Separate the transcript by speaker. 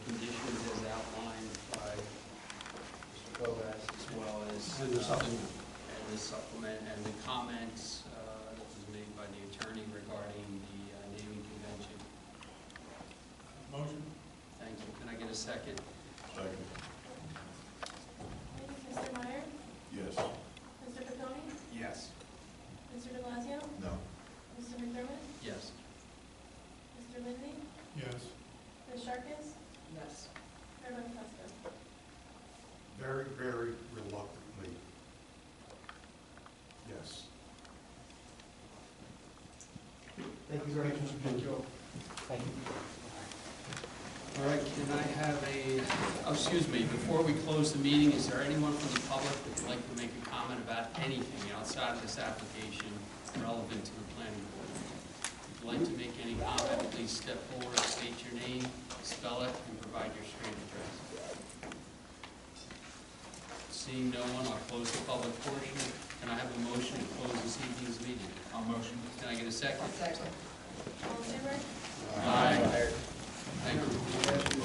Speaker 1: uh, comments uh, that was made by the attorney regarding the uh, naming convention.
Speaker 2: Motion?
Speaker 1: Thank you. Can I get a second?
Speaker 2: Second.
Speaker 3: Mr. Meyer?
Speaker 2: Yes.
Speaker 3: Mr. Caponi?
Speaker 1: Yes.
Speaker 3: Mr. De Blasio?
Speaker 2: No.
Speaker 3: Mr. McDermott?
Speaker 1: Yes.
Speaker 3: Mr. Lindsey?
Speaker 2: Yes.
Speaker 3: Ms. Sharkus?
Speaker 4: Yes.
Speaker 3: Mayor Metzger?
Speaker 2: Very, very reluctantly. Yes.
Speaker 5: Thank you very much.
Speaker 1: Thank you.
Speaker 5: Thank you.
Speaker 1: All right, can I have a, oh, excuse me, before we close the meeting, is there anyone from the public that would like to make a comment about anything outside of this application relevant to the planning board? If you'd like to make any comment, please step forward, state your name, spell it, and provide your street address. Seeing no one, I'll close the public portion. Can I have a motion to close this evening's meeting?
Speaker 6: I'll motion.
Speaker 1: Can I get a second?
Speaker 4: Second.